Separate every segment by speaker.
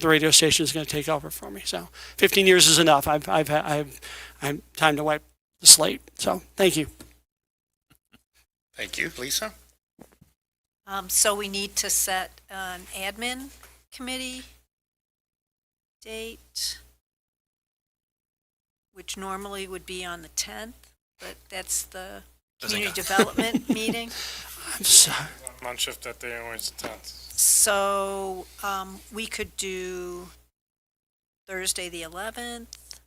Speaker 1: the radio station is going to take over for me. So 15 years is enough. I've, I've, I've, I'm time to wipe the slate. So thank you.
Speaker 2: Thank you. Lisa?
Speaker 3: Um, so we need to set an admin committee date, which normally would be on the tenth, but that's the
Speaker 2: Doesn't
Speaker 3: community
Speaker 2: go.
Speaker 3: development meeting.
Speaker 1: I'm sorry.
Speaker 4: on shift that day always tenth.
Speaker 3: So, um, we could do Thursday, the eleventh,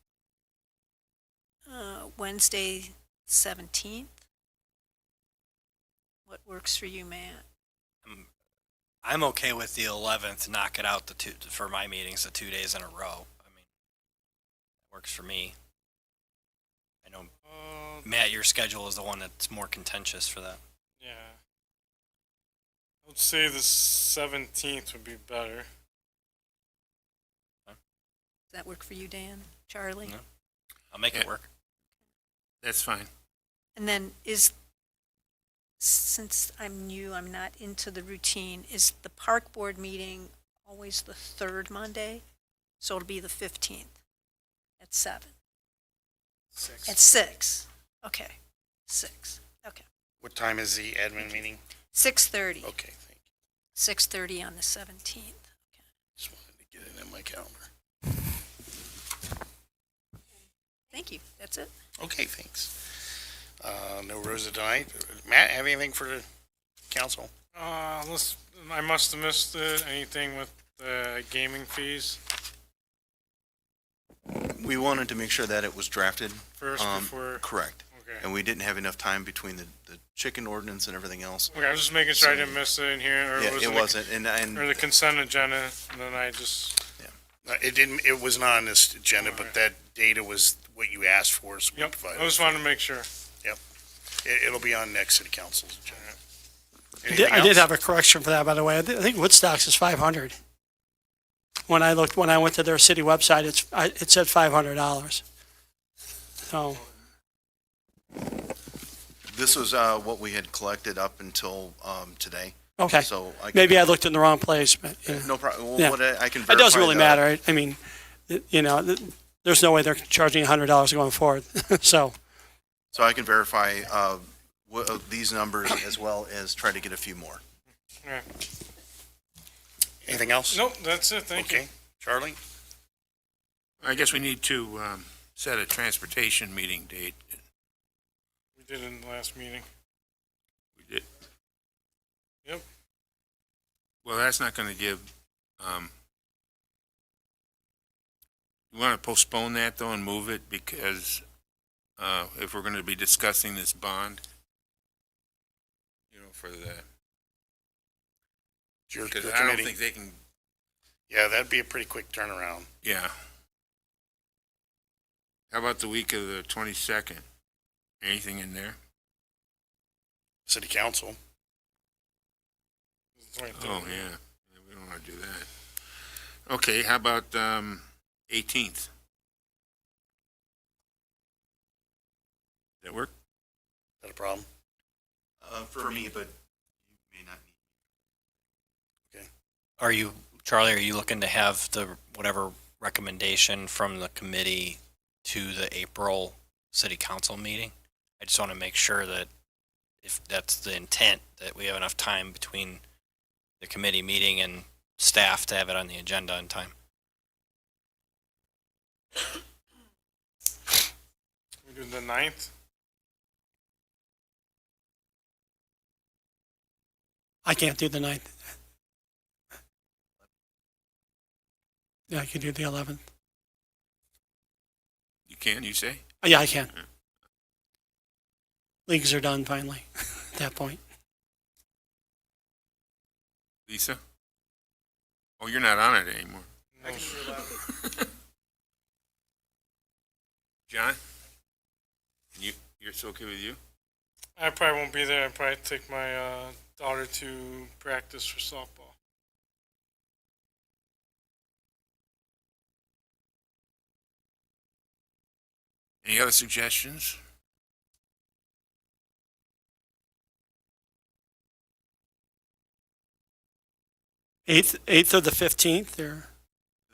Speaker 3: uh, Wednesday, seventeenth. What works for you, Matt?
Speaker 5: I'm okay with the eleventh, knock it out the two, for my meetings, the two days in a row. I mean, works for me. I know,
Speaker 4: Uh,
Speaker 5: Matt, your schedule is the one that's more contentious for that.
Speaker 4: yeah. I would say the seventeenth would be better.
Speaker 3: Does that work for you, Dan, Charlie?
Speaker 5: No. I'll make it
Speaker 2: Yeah.
Speaker 5: work.
Speaker 2: That's fine.
Speaker 3: And then is, since I'm new, I'm not into the routine, is the park board meeting always the third Monday? So it'll be the 15th at 7?
Speaker 4: Six.
Speaker 3: At 6? Okay, 6, okay.
Speaker 2: What time is the admin meeting?
Speaker 3: 6:30,
Speaker 2: Okay, thank you.
Speaker 3: 6:30 on the 17th. Okay.
Speaker 2: Just wanted to get it in my calendar.
Speaker 3: Thank you, that's it.
Speaker 2: Okay, thanks. Uh, no Rosa tonight. Matt, have anything for the council?
Speaker 4: Uh, let's, I must have missed uh, anything with the gaming fees
Speaker 6: We wanted to make sure that it was drafted.
Speaker 4: first
Speaker 6: um,
Speaker 4: before,
Speaker 6: Correct.
Speaker 4: okay.
Speaker 6: And we didn't have enough time between the, the chicken ordinance and everything else.
Speaker 4: Okay, I'm just making sure I didn't miss it in here, or
Speaker 6: Yeah,
Speaker 4: was
Speaker 6: it wasn't, and,
Speaker 4: Or the
Speaker 6: and
Speaker 4: consent agenda, and then I just,
Speaker 2: Uh, It didn't, it was not on this agenda, but that data was what you asked for, so we
Speaker 4: yep, I
Speaker 2: provided.
Speaker 4: just wanted to make sure.
Speaker 2: It, it'll be on next city council's agenda.
Speaker 1: I did,
Speaker 2: Anything
Speaker 1: I did
Speaker 2: else?
Speaker 1: have a correction for that, by the way. I thi- I think Woodstocks is 500. When I looked, when I went to their city website, it's, I, it said $500. So
Speaker 6: this was, uh, what we had collected up until, um, today.
Speaker 1: okay,
Speaker 6: So I. can-
Speaker 1: maybe I looked in the wrong place, but yeah.
Speaker 6: No problem.
Speaker 1: Yeah.
Speaker 6: Well, what I, I can verify.
Speaker 1: It doesn't really
Speaker 6: that.
Speaker 1: matter. I- I mean, it- you know, th- there's no way they're charging $100 going forward. so,
Speaker 6: So I can verify, uh, wha- uh, these numbers as well as try to get a few more.
Speaker 4: Yeah.
Speaker 2: Anything else?
Speaker 4: Nope, that's it, thank you.
Speaker 2: Okay, Charlie?
Speaker 7: I guess we need to um, set a transportation meeting date.
Speaker 4: We did in the last meeting.
Speaker 7: We did-
Speaker 4: Yep.
Speaker 7: Well, that's not going to give, um, you want to postpone that though and move it because uh, if we're going to be discussing this bond, you know, for the,
Speaker 2: It's your-
Speaker 7: because
Speaker 2: your
Speaker 7: I don't
Speaker 2: committee.
Speaker 7: think they can,
Speaker 2: Yeah, that'd be a pretty quick turnaround.
Speaker 7: yeah. How about the week of the 22nd? Anything in there?
Speaker 2: City council,
Speaker 7: Oh, yeah. Yeah, We don't want to do that. Okay, how about, um, eighteenth? That work?
Speaker 2: is that a problem?
Speaker 6: Uh, for me, but you may not need.
Speaker 5: Are you, Charlie, are you looking to have the, whatever recommendation from the committee to the April city council meeting? I just want to make sure that if that's the intent, that we have enough time between the committee meeting and staff to have it on the agenda in time.
Speaker 4: We do the ninth?
Speaker 1: I can't do the 9th. Yeah, I can do the 11th.
Speaker 7: You can, you say?
Speaker 1: Uh, Yeah, I can. Leagues are done finally at that point.
Speaker 7: Lisa? Oh, you're not on it anymore. John? You, you're it's okay with you?
Speaker 4: I probably won't be there. I probably take my uh, daughter to practice for softball.
Speaker 7: Any other suggestions?
Speaker 1: Eighth, eighth or the fifteenth, or